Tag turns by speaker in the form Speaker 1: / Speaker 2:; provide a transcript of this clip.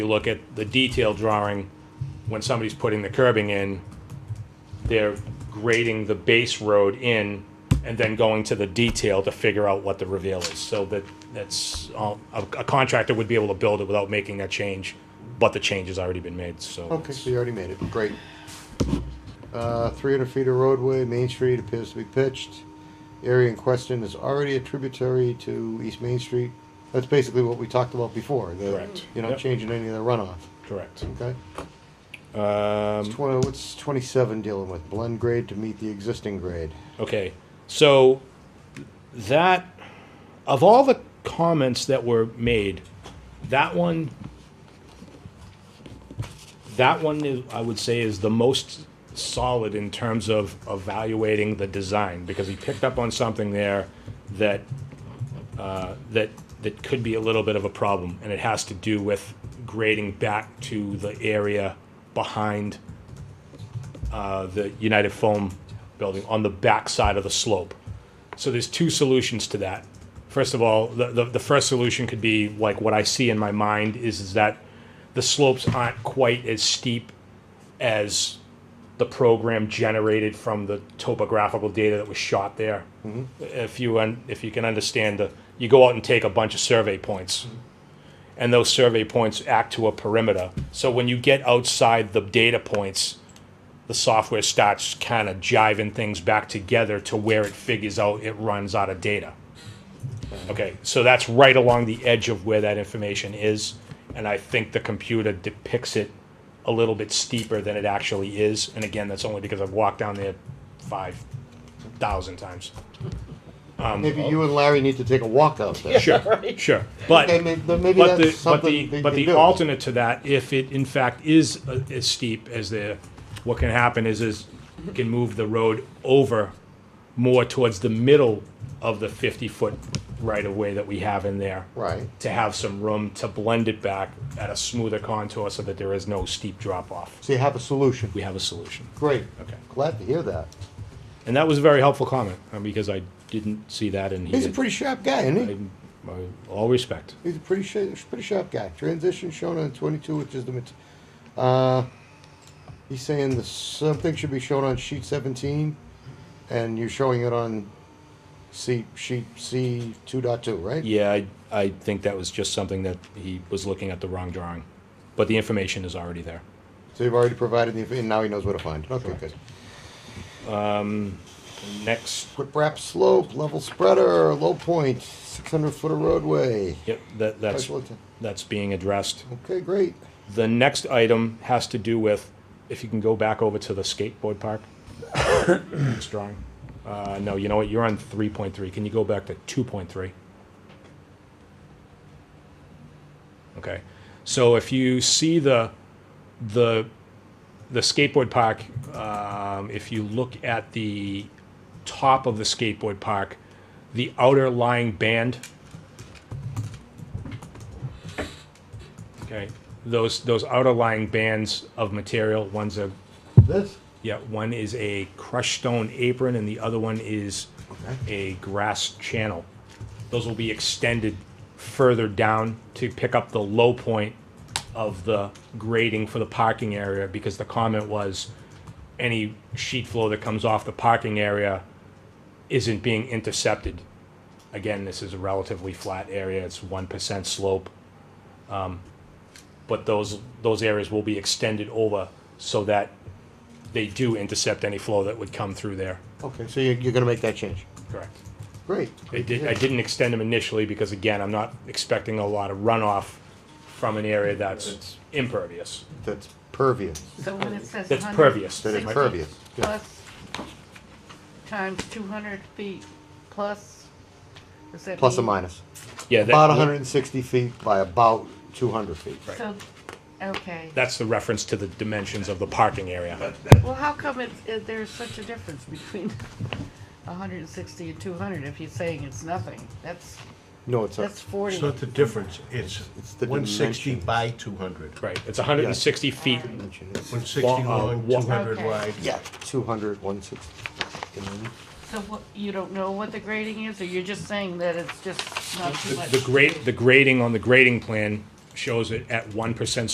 Speaker 1: You look at the detail drawing, when somebody's putting the curbing in, they're grading the base road in and then going to the detail to figure out what the reveal is. So that, that's, all- a a contractor would be able to build it without making that change, but the change has already been made, so.
Speaker 2: Okay, so you already made it. Great. Uh, 300 feet of roadway, Main Street appears to be pitched. Area in question is already a tributary to East Main Street. That's basically what we talked about before. the-
Speaker 1: Correct.
Speaker 2: You're not
Speaker 1: Yep.
Speaker 2: changing any of the runoff.
Speaker 1: Correct.
Speaker 2: Okay.
Speaker 1: Um,
Speaker 2: Twenty. What's 27 dealing with? Blend grade to meet the existing grade.
Speaker 1: Okay, so that of all the comments that were made, that one, that one is, I would say is the most solid in terms of evaluating the design because he picked up on something there that uh, that that could be a little bit of a problem, and it has to do with grading back to the area behind uh, the United Foam building on the back side of the slope. So there's two solutions to that. First of all, the, the, the first solution could be like what I see in my mind is, is that the slopes aren't quite as steep as the program generated from the topographical data that was shot there. If you un, if you can understand the, you go out and take a bunch of survey points, and those survey points act to a perimeter. So when you get outside the data points, the software starts kind of jiving things back together to where it figures out it runs out of data. Okay, so that's right along the edge of where that information is, and I think the computer depicts it a little bit steeper than it actually is. And again, that's only because I've walked down there five thousand times.
Speaker 2: Maybe you and Larry need to take a walk out there.
Speaker 1: Um, oh. Sure, sure, but.
Speaker 2: Okay, may- then maybe
Speaker 1: But
Speaker 2: that's
Speaker 1: the, but
Speaker 2: something
Speaker 1: the,
Speaker 2: they
Speaker 1: but
Speaker 2: can
Speaker 1: the
Speaker 2: do.
Speaker 1: alternate to that, if it in fact is uh, as steep as the, what can happen is, is you can move the road over more towards the middle of the fifty-foot right-of-way that we have in there.
Speaker 2: Right.
Speaker 1: To have some room to blend it back at a smoother contour so that there is no steep drop-off.
Speaker 2: So you have a solution.
Speaker 1: We have a solution.
Speaker 2: Great.
Speaker 1: Okay.
Speaker 2: Glad to hear that.
Speaker 1: And that was a very helpful comment, uh, because I didn't see that and he
Speaker 2: He's a
Speaker 1: did.
Speaker 2: pretty sharp guy, isn't he?
Speaker 1: I- All respect.
Speaker 2: He's a pretty sharp, pretty sharp guy. Transition shown on 22, which is the. mat- Uh, he's saying the something should be shown on sheet 17, and you're showing it on C sheet C 2.2, right?
Speaker 1: Yeah, I, I think that was just something that he was looking at the wrong drawing, but the information is already there.
Speaker 2: So you've already provided the. And now he knows where to find it. Okay, good.
Speaker 1: Next,
Speaker 2: Whip wrap slope, level spreader, low point, 600 foot of roadway.
Speaker 1: yep, that, that's,
Speaker 2: Special atten-
Speaker 1: that's being addressed.
Speaker 2: Okay, great.
Speaker 1: The next item has to do with, if you can go back over to the skateboard park. Next drawing. Uh, no, you know what, you're on three point three, can you go back to two point three? Okay, so if you see the, the, the skateboard park, um, if you look at the top of the skateboard park, the outer lying band. Okay, those, those outer lying bands of material, one's a
Speaker 2: This?
Speaker 1: yeah, one is a crushed stone apron and the other one is a grass channel. Those will be extended further down to pick up the low point of the grading for the parking area because the comment was any sheet flow that comes off the parking area isn't being intercepted. Again, this is a relatively flat area, it's one percent slope Um, but those, those areas will be extended over so that they do intercept any flow that would come through there.
Speaker 2: Okay, so you're, you're going to make that change.
Speaker 1: Correct.
Speaker 2: Great.
Speaker 1: I
Speaker 2: Great to
Speaker 1: did, I
Speaker 2: hear.
Speaker 1: didn't extend them initially because again, I'm not expecting a lot of runoff from an area that's impervious,
Speaker 2: That's pervious.
Speaker 3: So when it says.
Speaker 1: that's
Speaker 3: 100
Speaker 1: pervious.
Speaker 2: That is
Speaker 1: Right.
Speaker 2: pervious. Good.
Speaker 3: Plus, times two hundred feet, plus, is that?
Speaker 2: Plus or
Speaker 3: mean-
Speaker 2: minus.
Speaker 1: Yeah,
Speaker 2: About
Speaker 1: that,
Speaker 2: 160 feet by about 200 feet.
Speaker 3: So, okay,
Speaker 1: that's the reference to the dimensions of the parking area.
Speaker 3: well, how come it, it- there's such a difference between hundred and sixty and two hundred if you're saying it's nothing? That's,
Speaker 2: No, it's
Speaker 3: that's
Speaker 2: not.
Speaker 3: forty.
Speaker 4: It's not the difference, it's
Speaker 2: It's the
Speaker 4: one sixty
Speaker 2: dimensions.
Speaker 4: by two hundred.
Speaker 1: Right, it's hundred and sixty feet,
Speaker 4: One sixty
Speaker 1: Wa- uh,
Speaker 4: long,
Speaker 1: wa-
Speaker 4: two hundred
Speaker 3: Okay.
Speaker 4: wide.
Speaker 2: Yeah, 200, 160. And then-
Speaker 3: So what, you don't know what the grading is, or you're just saying that it's just not too
Speaker 1: the
Speaker 3: much?
Speaker 1: the grade, the grading on the grading plan shows it at one percent